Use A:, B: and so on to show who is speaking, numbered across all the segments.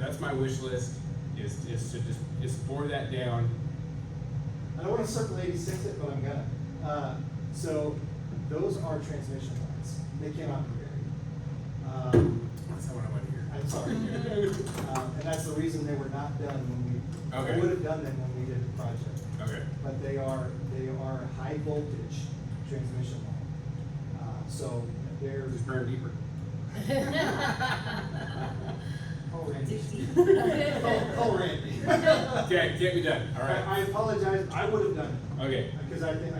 A: that's my wish list, is, is to just, just bore that down.
B: I don't wanna circle eighty-six it, but I'm gonna. Uh, so those are transmission lines. They cannot be buried. Um,
A: That's not what I want to hear.
B: I'm sorry. Um, and that's the reason they were not done when we,
A: Okay.
B: would have done them when we did the project.
A: Okay,
B: But they are, they are high voltage transmission line. Uh, so they're.
A: just burn deeper.
B: Oh, Randy. Oh, oh,
C: Alright.
B: Randy.
A: Okay, can't be done, all
B: I I
A: right.
B: apologize, I would have done it.
A: Okay,
B: Because I think, I.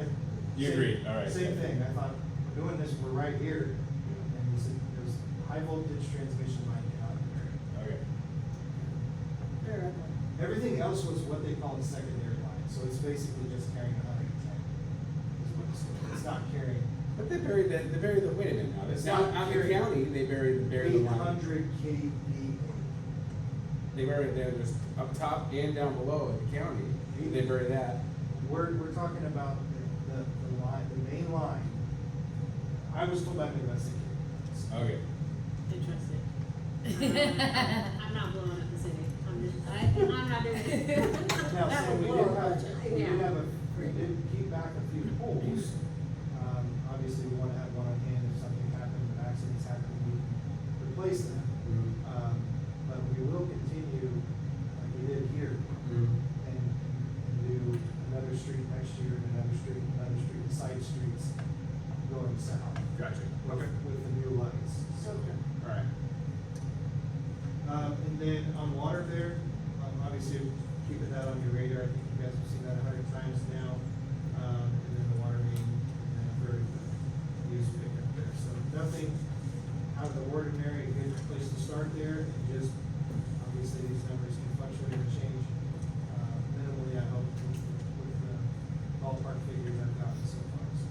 A: You
B: same-
A: agree, all right.
B: Same thing, I thought, we're doing this, we're right here, and you said, there's high voltage transmission line down there.
A: okay.
B: Everything else was what they call a secondary line, so it's basically just carrying a hundred and ten. Is what it's, doing. it's not carrying
A: But they buried that, they buried the, wait a minute now,
B: It's
A: it's
B: not
A: out, out in the
B: buried.
A: county, they buried, buried the
B: eight
A: line.
B: hundred KVA.
A: They buried, there was up top and down below in the county, they buried that.
B: We're, we're talking about the, the, the line, the main line. I was told by Midwest.
A: Okay.
D: Interesting.
E: I'm not blowing up the city, I'm just, I, I'm not doing it.
B: Now,
C: That
B: so
C: would
B: we
C: blow
B: did
C: our
B: have,
C: budget.
B: we did
E: Yeah.
B: have a, we did keep back a few poles. Um, obviously, we wanna have one on hand if something happened, if accidents happen, we replace them.
A: Mhm.
B: Um, but we will continue, like we did here,
A: Mhm.
B: and, and do another street next year, and another street, another street, side streets going south.
A: Gotcha,
B: with-
A: okay,
B: With the new lights, so.
A: all right.
B: Um, and then on water there, um, obviously keeping that on your radar, I think you guys have seen that a hundred times now. Um, and then the water main, and then a third of the use pickup there, so nothing out of the ordinary, a good place to start there, and just, obviously these numbers can fluctuate and change. Uh, minimally, I hope, with, with the ballpark figures I've gotten so far, so.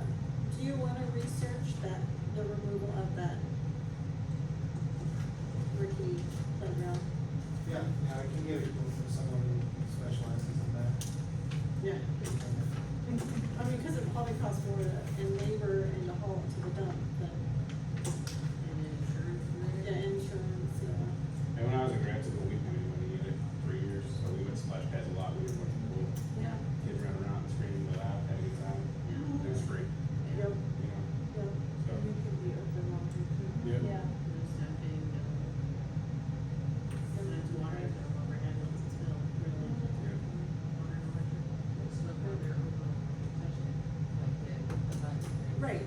C: Do you wanna research that, the removal of that Ricky playground?
B: Yeah, yeah, I can give it to someone who specializes in that.
C: Yeah. I mean, cause it probably costs more to, in labor and the haul to the dump, but, yeah, insurance, uh, yeah.
A: And when I was in grad school, we didn't have any money either, three years, so we went to splash pads a lot, we didn't want to pool.
C: Yeah.
A: Kids running around, screaming, loud, having a good time, it was free,
C: Yep,
A: you know,
C: yep.
A: so.
D: We could be open longer too.
A: Yeah.
C: Right.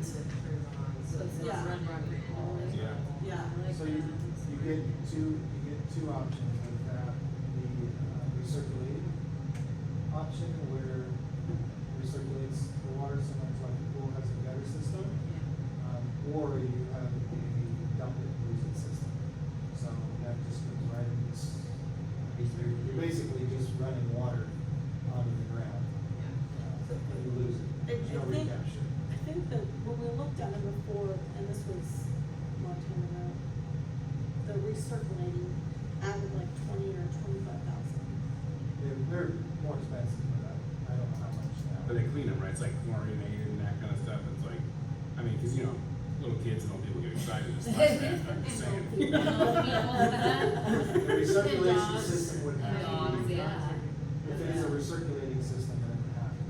C: Yeah.
A: Yeah.
B: So you, you get two, you get two options with that, the uh, recirculating option where recirculates the water, sometimes like the pool has a gutter system. Um, or you have a dump and lose it system, so that just goes right in this. You're you're basically just running water onto the ground, uh, and you lose it,
C: I-
B: there's no
C: I think-
B: recapture.
C: I think that when we looked at it before, and this was a long time ago, the recirculating added like twenty or twenty-five thousand.
B: They're, they're more expensive, but I, I don't know how much now.
A: But they clean them, right? It's like chlorinated and that kind of stuff. It's like, I mean, because you know, little kids and old people get excited and stuff. I'm just saying.
B: The recirculation
E: Dogs.
B: system would have to
E: Dogs,
B: be.
E: yeah.
B: If it is a recirculating system, then it would have to be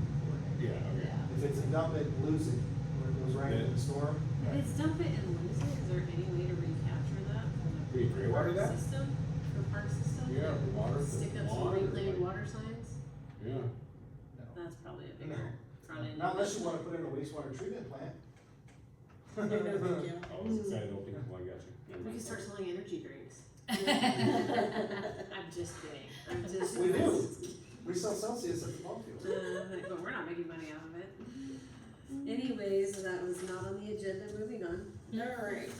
A: Yeah.
B: coordinated.
A: Okay.
B: If it's a dump it, and lose it, where it goes right into the storm,
A: Right.
E: It's dump it and lose it, is there any way to recapture that from
A: We
E: the
A: agree with
E: park
A: that.
E: system, for park system?
A: Yeah, water-
E: Stick up some
A: water,
E: reclaimed
A: like-
E: water signs,
A: Yeah.
B: no.
E: that's probably a
B: No.
E: bigger, probably.
B: Not unless you wanna put in a wastewater treatment plant.
A: I was excited old people. I got you.
E: We can start selling energy drinks. I'm just kidding, I'm just.
B: We do. We sell Celsius at the ball field.
E: Uh, But we're not making money off of it. Anyways, that was not on the agenda, moving on.
C: Alright.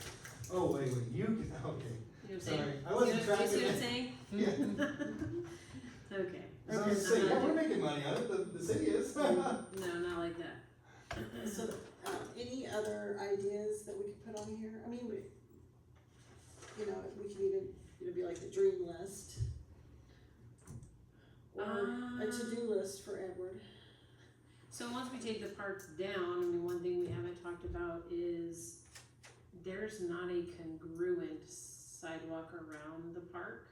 B: Oh, wait, wait, you, can- okay.
E: You know what I'm saying?
B: Sorry, I wasn't
E: You know- do you see what I'm
B: tracking
E: saying?
B: Yeah,
E: Okay.
B: so I was saying, yeah, we're making money on it, the, the city is.
E: Uh, No, not like that.
C: So, uh, any other ideas that we could put on here? I mean, we, you know, we could even, it'd be like the dream list.
E: Um,
C: Or a to-do list for Edward.
E: So once we take the parks down, I mean, one thing we haven't talked about is there's not a congruent sidewalk around the park.